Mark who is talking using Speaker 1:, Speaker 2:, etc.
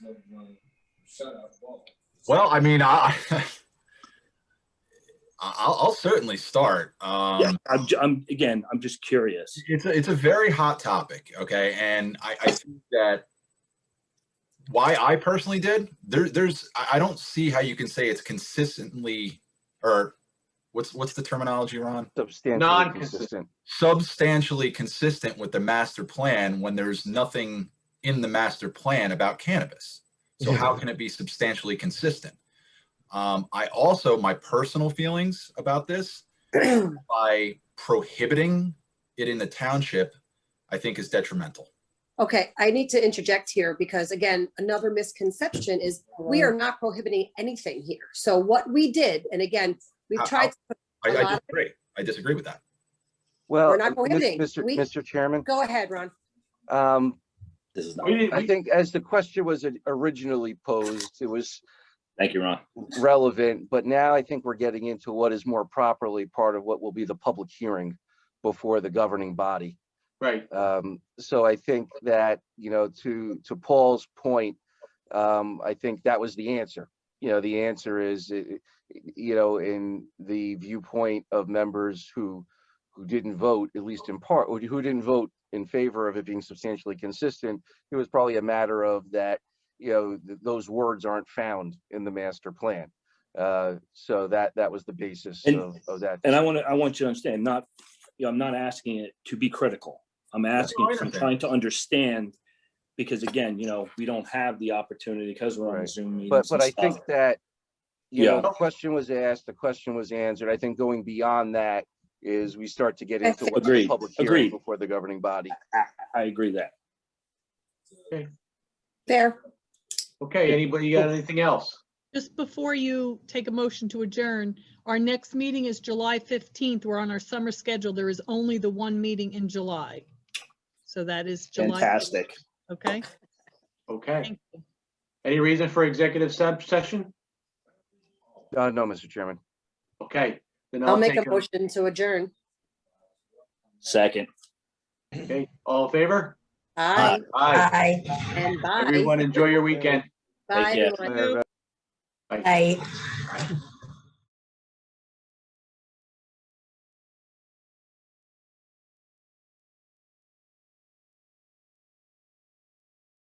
Speaker 1: percent out of all.
Speaker 2: Well, I mean, I, I- I'll, I'll certainly start. Um,
Speaker 3: Yeah, I'm, ju- I'm, again, I'm just curious.
Speaker 2: It's a, it's a very hot topic, okay? And I, I think that why I personally did there, there's I I don't see how you can say it's consistently or what's what's the terminology, Ron?
Speaker 4: Substantially
Speaker 5: Non-consistent.
Speaker 4: consistent.
Speaker 2: Substantially consistent with the master plan when there's nothing in the master plan about cannabis. So how can it be substantially consistent? Um, I also my personal feelings about this by prohibiting it in the township, I think is detrimental.
Speaker 6: Okay, I need to interject here because again, another misconception is we are not prohibiting anything here. So what we did, and again,
Speaker 2: How-
Speaker 6: we've tried,
Speaker 2: I,
Speaker 6: A lot
Speaker 2: I
Speaker 6: of-
Speaker 2: disagree. I disagree with that.
Speaker 4: Well, uh,
Speaker 6: We're not
Speaker 4: Mis-
Speaker 6: prohibiting.
Speaker 4: Mr.
Speaker 6: We-
Speaker 4: Mr. Chairman,
Speaker 6: go ahead, Ron.
Speaker 4: um,
Speaker 3: This is not,
Speaker 5: We didn't,
Speaker 4: I
Speaker 5: we-
Speaker 4: think as the question was originally posed, it was
Speaker 3: thank you, Ron.
Speaker 4: relevant, but now I think we're getting into what is more properly part of what will be the public hearing before the governing body.
Speaker 5: right,
Speaker 4: Um, so I think that, you know, to, to Paul's point, um, I think that was the answer. You know, the answer is, i- i- you know, in the viewpoint of members who, who didn't vote, at least in part, or who didn't vote in favor of it being substantially consistent, it was probably a matter of that, you know, th- those words aren't found in the master plan. Uh, so that, that was the basis
Speaker 3: And-
Speaker 4: of, of that.
Speaker 3: And I want to, I want you to understand, not, you know, I'm not asking it to be critical. I'm asking,
Speaker 2: I
Speaker 3: I'm
Speaker 2: understand.
Speaker 3: trying to understand, because again, you know, we don't have the opportunity because we're on
Speaker 4: Right.
Speaker 3: Zoom meetings.
Speaker 4: But, but
Speaker 3: and
Speaker 4: I think
Speaker 3: stuff.
Speaker 4: that, you
Speaker 3: Yeah.
Speaker 4: know, the question was asked, the question was answered. I think going beyond that is we start to get
Speaker 6: I
Speaker 4: into
Speaker 6: think-
Speaker 4: what's a
Speaker 3: Agreed,
Speaker 4: public
Speaker 3: agreed.
Speaker 4: hearing before the governing body.
Speaker 3: I agree that.
Speaker 6: There,
Speaker 5: okay, anybody got anything else?
Speaker 7: Just before you take a motion to adjourn, our next meeting is July 15th. We're on our summer schedule. There is only the one meeting in July. So that is July. 15th,
Speaker 3: Fantastic.
Speaker 7: Okay,
Speaker 5: Okay,
Speaker 7: thank you.
Speaker 5: any reason for executive se- session?
Speaker 4: Uh, no, Mr. Chairman.
Speaker 5: Okay. then
Speaker 6: I'll make a
Speaker 5: take
Speaker 6: motion to adjourn.
Speaker 3: Second.
Speaker 5: Okay, all in favor?
Speaker 6: Aye,
Speaker 5: Aye.
Speaker 6: and bye.
Speaker 5: Everyone enjoy your weekend.
Speaker 6: Bye,
Speaker 3: Take care.
Speaker 6: everyone.
Speaker 4: Uh,
Speaker 5: Bye.
Speaker 8: Aye.